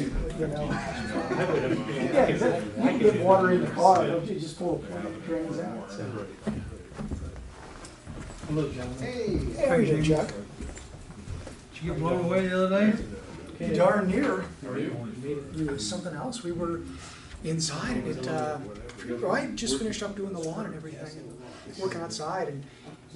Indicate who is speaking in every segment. Speaker 1: you know? Yeah, 'cause that- you can get water in the car, don't you just pull a plug, it drains out, so.
Speaker 2: Hello, gentlemen.
Speaker 3: Hey,
Speaker 1: There you go, Chuck.
Speaker 2: Did you get blown away the other day?
Speaker 3: darn near.
Speaker 2: How
Speaker 3: It was something else. We were inside and it, uh, well, I had just finished up doing the lawn and everything and working outside and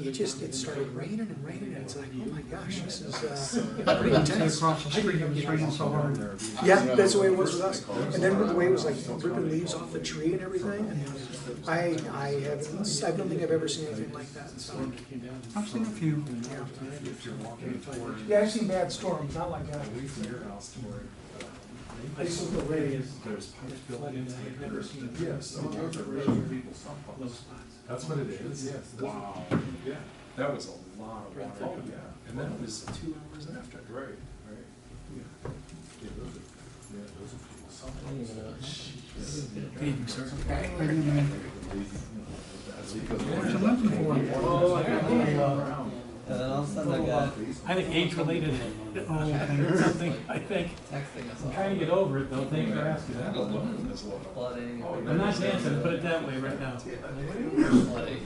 Speaker 3: it just, it started raining and raining and it's like, oh my gosh, this is, uh, pretty intense.
Speaker 2: Across the street, it was raining so hard.
Speaker 3: Yeah, that's the way it was with us. And then the way it was like ripping leaves off the tree and everything. and I, I have, I don't think I've ever seen anything like that, so.
Speaker 2: I've seen a few.
Speaker 1: Yeah, I've seen bad storms, not like uh, that. I used to look at the radio.
Speaker 4: Yes. That's what it is. Yes. Wow. Yeah. That was a lot of water. Oh, yeah. And that was two hours after. Right, right.
Speaker 2: What's it looking for?
Speaker 4: Oh,
Speaker 5: And then all of a sudden I got
Speaker 6: I think age related, Um, something, I think,
Speaker 5: texting us
Speaker 6: I'm
Speaker 5: all.
Speaker 6: trying to get over it though, thanks for asking.
Speaker 4: That alone is a lot.
Speaker 5: Flooding.
Speaker 6: I'm not dancing, put it that way right now.
Speaker 5: Flooding.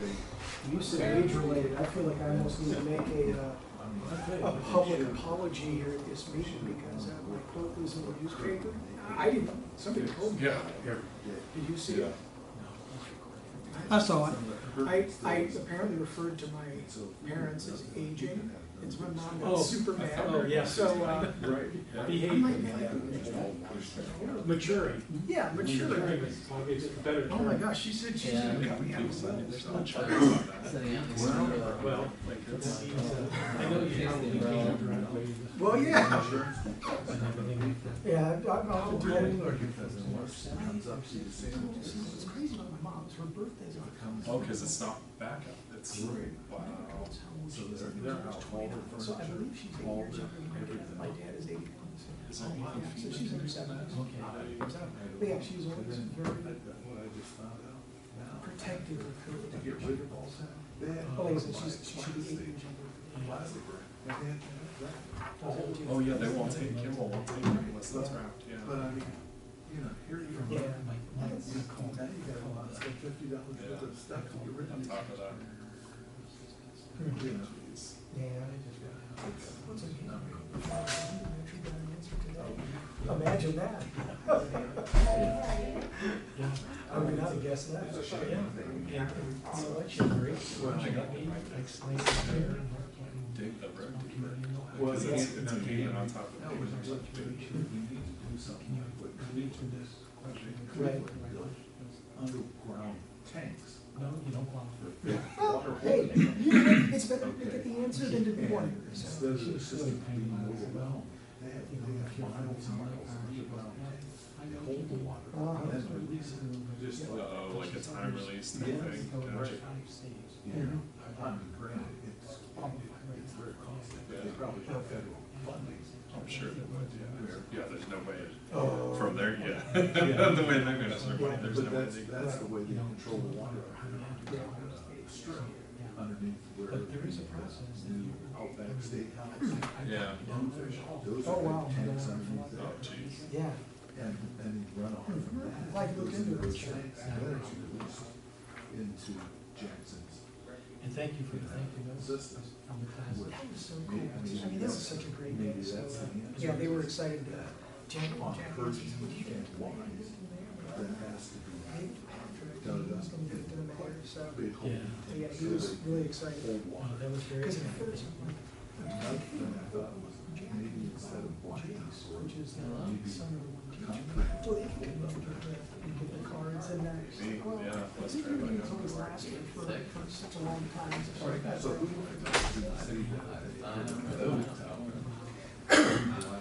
Speaker 1: You said age related, I feel like I almost need to make a, uh, a public apology here at this meeting because uh, my quote was in the newspaper. I didn't, somebody told me.
Speaker 4: Yeah.
Speaker 1: Did you see it?
Speaker 2: I saw it.
Speaker 1: I, I apparently referred to my parents as aging. It's my mom
Speaker 6: Oh.
Speaker 1: was super mad.
Speaker 6: Oh, yeah.
Speaker 1: So, uh,
Speaker 4: Right.
Speaker 1: I'm like,
Speaker 6: Behavior. Maturing.
Speaker 1: yeah, mature.
Speaker 6: Maturing is probably a better
Speaker 1: Oh my
Speaker 6: term.
Speaker 1: gosh, she said she's
Speaker 5: Yeah.
Speaker 1: gonna cut me out.
Speaker 5: Sitting on the street, uh,
Speaker 6: Well, it seems, uh, I know you probably can't directly.
Speaker 1: Well, yeah.
Speaker 6: and everything.
Speaker 1: Yeah, I- I'll I'll do that. It's
Speaker 4: Oh,
Speaker 1: crazy about my mom's, her birthday's on.
Speaker 4: cause it's not backup, it's. Wow. So they're, they're out all the
Speaker 1: So I
Speaker 4: furniture.
Speaker 1: believe she's eight years younger than my dad, my dad is eighty-one,
Speaker 4: It's
Speaker 1: so.
Speaker 4: a lot of
Speaker 1: Yeah, So she's in her seventies. But yeah, she's always very protective of her. Oh, and she's, she should be eight years younger.
Speaker 4: Oh, yeah, they won't take, Kimball won't take it unless that's wrapped, yeah.
Speaker 7: But I mean, you know, here you are.
Speaker 1: Yeah.
Speaker 7: You call me, you got a lot, so fifty dollars worth of stuff to get rid
Speaker 4: On
Speaker 7: of.
Speaker 4: top of that.
Speaker 1: Hmm.
Speaker 4: Yeah, it's-
Speaker 1: Yeah. What's a game? Imagine that. I would not guess that.
Speaker 6: Yeah.
Speaker 1: So I should agree.
Speaker 4: Dig the road deeper.
Speaker 7: Well,
Speaker 4: Cause
Speaker 7: yeah.
Speaker 4: it's, it's a game on top of it.
Speaker 1: Right.
Speaker 7: Underground tanks.
Speaker 1: Well, hey, you know, what? it's better to get the answer than to be wondering.
Speaker 7: Instead of the system being overwhelmed, they have, they have miles and miles of underground tanks. They hold the water
Speaker 1: Ah.
Speaker 7: and then release it. Just like,
Speaker 4: Uh, like a time release type thing. Gotcha.
Speaker 7: you know, I'm granted, it's, it's very costly, but they probably have federal funding.
Speaker 4: I'm sure they would, yeah. Yeah, there's no way
Speaker 1: Oh.
Speaker 4: from there, yeah. The way they're gonna survive, there's no
Speaker 7: But
Speaker 4: way.
Speaker 7: that's,
Speaker 4: they-
Speaker 7: that's the way they control the water. Strip Underneath where. But there is a process. Outback Steakhouse.
Speaker 4: Yeah.
Speaker 7: Bonefish, those
Speaker 1: Oh,
Speaker 7: are
Speaker 1: wow.
Speaker 7: the tanks underneath
Speaker 4: Oh,
Speaker 7: there.
Speaker 4: jeez.
Speaker 1: Yeah.
Speaker 7: And, and you run off from that.
Speaker 1: Like look
Speaker 7: Those
Speaker 1: into
Speaker 7: those
Speaker 1: it.
Speaker 7: tanks then are released into Jackson's.
Speaker 6: And thank you for
Speaker 7: System.
Speaker 6: the
Speaker 1: That was so cool. I mean, that was such a great day, so, uh, yeah, they were excited, uh, Jack, Jack,
Speaker 7: On
Speaker 1: was-
Speaker 7: Pershing
Speaker 1: would you
Speaker 7: and
Speaker 1: want
Speaker 7: wines,
Speaker 1: to do that?
Speaker 7: that has to be.
Speaker 1: Maybe Patrick, and he was gonna get to the mayor, so,
Speaker 7: Big hole.
Speaker 6: Yeah.
Speaker 1: yeah, he was really excited.
Speaker 7: Cold water.
Speaker 6: That was very.
Speaker 1: Cause at first, I'm like,
Speaker 7: Another thing I thought was maybe instead of black
Speaker 1: Jake's,
Speaker 7: or
Speaker 1: which is the
Speaker 7: Maybe.
Speaker 1: son of the one teacher,
Speaker 7: concrete,
Speaker 1: well, they could get the, the cards and that.
Speaker 4: See,
Speaker 1: Well,
Speaker 4: yeah, let's
Speaker 1: they've
Speaker 4: try
Speaker 1: been
Speaker 4: that
Speaker 1: doing
Speaker 4: out.
Speaker 1: those last year for, for such a long time. so-
Speaker 7: so who would I talk to in the city that they- those town?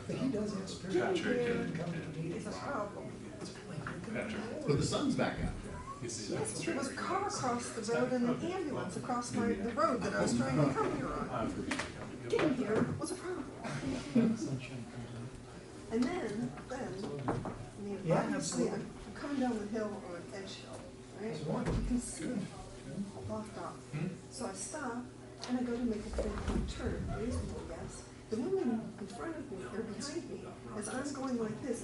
Speaker 1: But he does have spirit.
Speaker 4: Patrick and-
Speaker 1: Come to me, it's a problem.
Speaker 4: Patrick.
Speaker 8: But the sun's back out.
Speaker 4: You see, that's
Speaker 9: Yes, there was a
Speaker 4: true.
Speaker 9: car across the road and an ambulance across my, the road that I was trying to come here on. Getting here was a problem. And then, then, I mean,
Speaker 1: Yeah,
Speaker 9: obviously,
Speaker 1: absolutely.
Speaker 9: I'm I'm coming down the hill on an eggshell, right?
Speaker 1: It's one.
Speaker 9: You can see it blocked off. So I stop and I go to make a three-point turn, reasonable guess. The woman in front of me, or behind me, as I'm going like this,